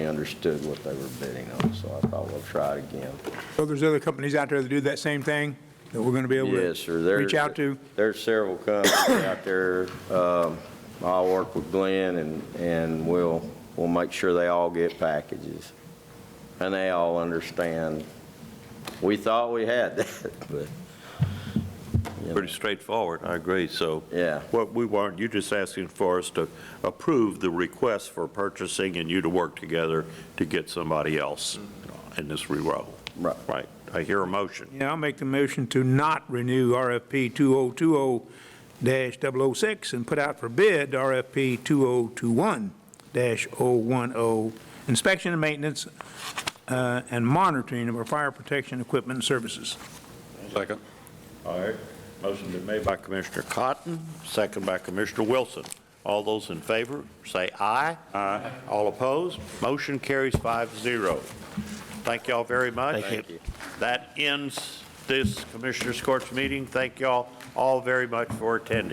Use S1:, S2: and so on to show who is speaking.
S1: understood what they were bidding on, so I thought we'll try it again.
S2: So there's other companies out there that do that same thing that we're going to be able to
S1: Yes, sir. There-
S2: reach out to?
S1: There's several companies out there. Um, I'll work with Glenn and, and we'll, we'll make sure they all get packages. And they all understand. We thought we had that, but,
S3: Pretty straightforward, I agree, so.
S1: yeah.
S3: What we want, you're just asking for us to approve the request for purchasing and you to work together to get somebody else in this reroute.
S1: Right.
S3: Right, I hear a motion.
S2: Yeah, I'll make the motion to not renew RFP 2020-006 and put out for bid RFP 2021-010, inspection and maintenance uh, and monitoring of our fire protection equipment and services.
S3: Second. All right, motion been made by Commissioner Cotton, second by Commissioner Wilson. All those in favor, say aye. Aye. All opposed, motion carries five zero. Thank y'all very much.
S1: Thank you.
S3: That ends this Commissioners Court's meeting. Thank y'all all very much for attending.